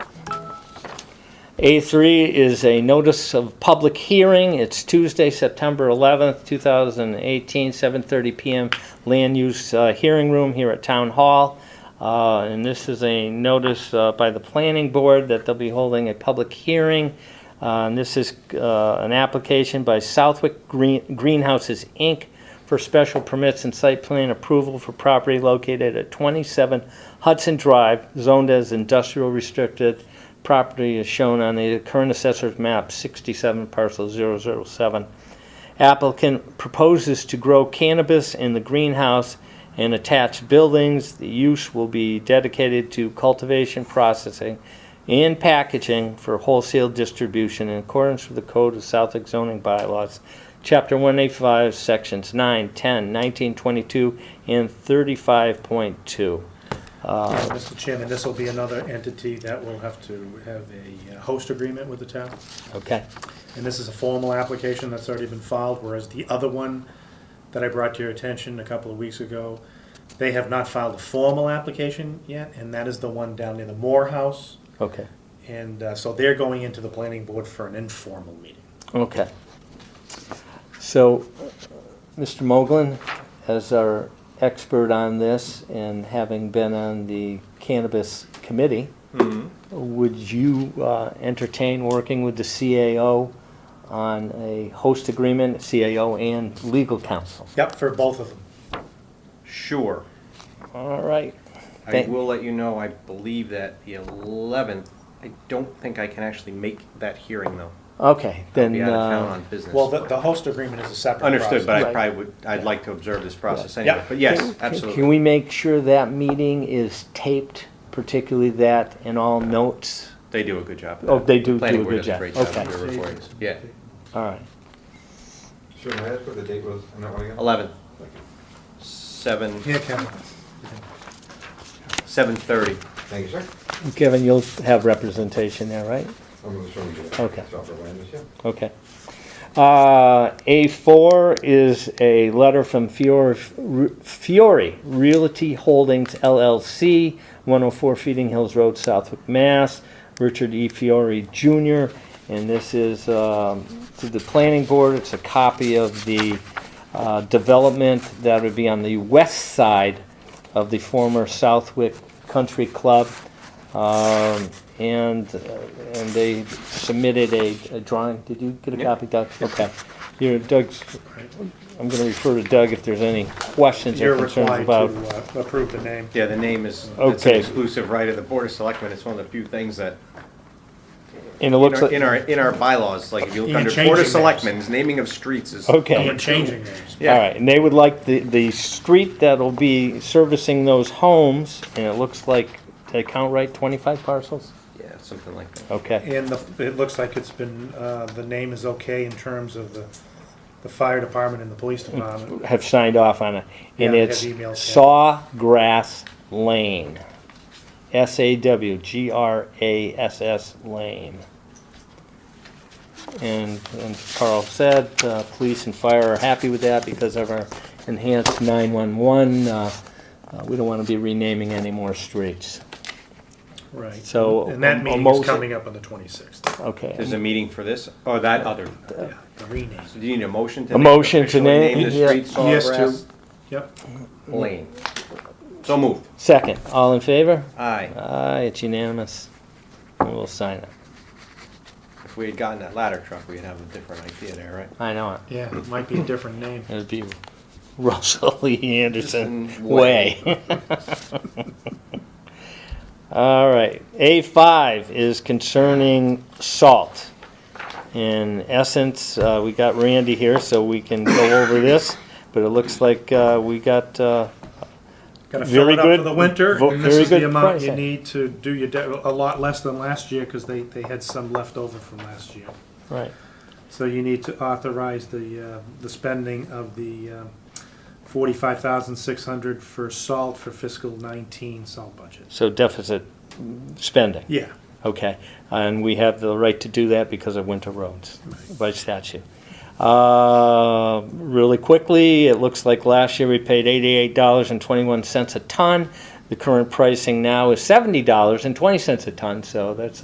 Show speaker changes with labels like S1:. S1: A3 is a notice of public hearing. It's Tuesday, September 11th, 2018, 7:30 PM, Land Use uh, Hearing Room here at Town Hall. Uh, And this is a notice uh, by the Planning Board that they'll be holding a public hearing. Uh, And this is uh, an application by Southwick Green- Greenhouses, Inc. for special permits and site plan approval for property located at 27 Hudson Drive, zoned as industrial restricted. Property is shown on the current assessor's map, 67 parcel 007. Applicant proposes to grow cannabis in the greenhouse and attached buildings. The use will be dedicated to cultivation, processing, and packaging for wholesale distribution in accordance with the Code of Southwick zoning bylaws, Chapter 185, Sections 9, 10, 19, 22, and 35.2.
S2: Uh, Mr. Chairman, this will be another entity that will have to have a uh, host agreement with the town.
S1: Okay?
S2: And this is a formal application that's already been filed, whereas the other one that I brought to your attention a couple of weeks ago, they have not filed a formal application yet, and that is the one down near the Moore House.
S1: Okay.
S2: And uh, so they're going into the planning board for an informal meeting.
S1: Okay. So, Mr. Moglen, as our expert on this and having been on the cannabis committee,
S3: Mm-hmm.
S1: would you uh, entertain working with the CAO on a host agreement, CAO and legal counsel?
S2: Yep, for both of them.
S3: Sure.
S1: All right.
S3: I
S1: Thank-
S3: will let you know, I believe that the 11th, I don't think I can actually make that hearing, though.
S1: Okay,
S3: I'll
S1: then.
S3: be out of town
S1: uh,
S3: on business.
S2: Well, the, the host agreement is a separate process.
S3: Understood, but I
S1: Right.
S3: probably would, I'd like to observe this process
S2: Yeah.
S3: anyway. But yes,
S1: can- Can
S3: absolutely.
S1: we make sure that meeting is taped, particularly that and all notes?
S3: They do a good job. of
S1: Oh,
S3: that.
S1: they do do
S3: Planning
S1: a
S3: board
S1: good
S3: does
S1: job.
S3: great job of
S1: Okay.
S3: their recordings. Yeah,
S1: All right.
S4: Sure, may I ask what the date was on that one again?
S3: 11th, 7,
S2: Here, Kevin.
S3: 7:30.
S4: Thank you, sir.
S1: Kevin, you'll have representation there, right?
S4: I'm gonna show you.
S1: Okay.
S4: Software land use, yeah.
S1: Okay. Uh, A4 is a letter from Fiore- Fiore Realty Holdings LLC, 104 Feeding Hills Road, Southwick, Mass. Richard E. Fiore Jr., and this is um, to the planning board. It's a copy of the uh, development that would be on the west side of the former Southwick Country Club. Um, and, uh, and they submitted a, a drawing. Did you get a
S3: Yeah.
S1: copy, Doug? Okay. Here, Doug's, I'm gonna refer to Doug if there's any questions or
S2: You're
S1: concerns
S2: required
S1: about.
S2: to uh, approve the name.
S3: Yeah, the name is, it's an
S1: Okay.
S3: exclusive right of the Board of Selectmen. It's one of the few things that,
S1: And it
S3: in
S1: looks
S3: our-
S1: like,
S3: in our, in our bylaws, like if you
S2: You
S3: look
S2: can
S3: under
S2: change
S3: Board of
S2: your names.
S3: Selectmen's, naming of streets is.
S2: And
S1: okay.
S2: we're changing names.
S1: All
S3: Yeah,
S1: right, and they would like the, the street that'll be servicing those homes, and it looks like, did I count right, twenty-five parcels?
S3: yeah, something like that.
S1: Okay,
S2: And the, it looks like it's been, uh, the name is okay in terms of the, the fire department and the police department.
S1: have signed off on it. And
S2: Yeah, I have
S1: it's
S2: emails, yeah.
S1: Sawgrass Lane. S-A-W-G-R-A-S-S Lane. And, and Carl said, uh, police and fire are happy with that because of our enhanced nine-one-one. Uh, uh, we don't wanna be renaming any more streets.
S2: Right.
S1: So,
S2: And that
S1: a-
S2: meeting
S1: almost- Uh,
S2: is coming up on the twenty-sixth,
S1: Okay.
S3: There's a meeting for this, or that other.
S2: yeah, the rename.
S3: So do you need a motion to?
S1: A motion to
S3: officially
S1: name- yeah.
S3: the street
S2: Yes,
S3: Sawgrass
S2: Yep,
S3: Lane. So moved.
S1: Second, all in favor?
S3: Aye.
S1: Aye, it's unanimous. And We'll sign it.
S3: If we had gotten that ladder truck, we'd have a different idea there, right?
S1: I know it.
S2: yeah, it might be a different name.
S1: It'd be Russell Lee Anderson
S3: Anderson
S1: Way. All right, A5 is concerning salt. In essence, uh, we got Randy here, so we can go over this, but it looks like uh, we got, uh,
S2: Gotta fill
S1: Very
S2: it up
S1: good-
S2: for the winter,
S1: vo-
S2: and this
S1: very
S2: is the
S1: good
S2: amount you
S1: pricing.
S2: need to do your, de- a lot less than last year, cause they, they had some left over from last year.
S1: right,
S2: So you need to authorize the, uh, the spending of the uh, forty-five thousand six hundred for salt for fiscal nineteen salt budget.
S1: so deficit spending.
S2: Yeah,
S1: Okay, and we have the right to do that because of winter roads by statute. Uh, Really quickly, it looks like last year we paid eighty-eight dollars and twenty-one cents a ton. The current pricing now is seventy dollars and twenty cents a ton, so that's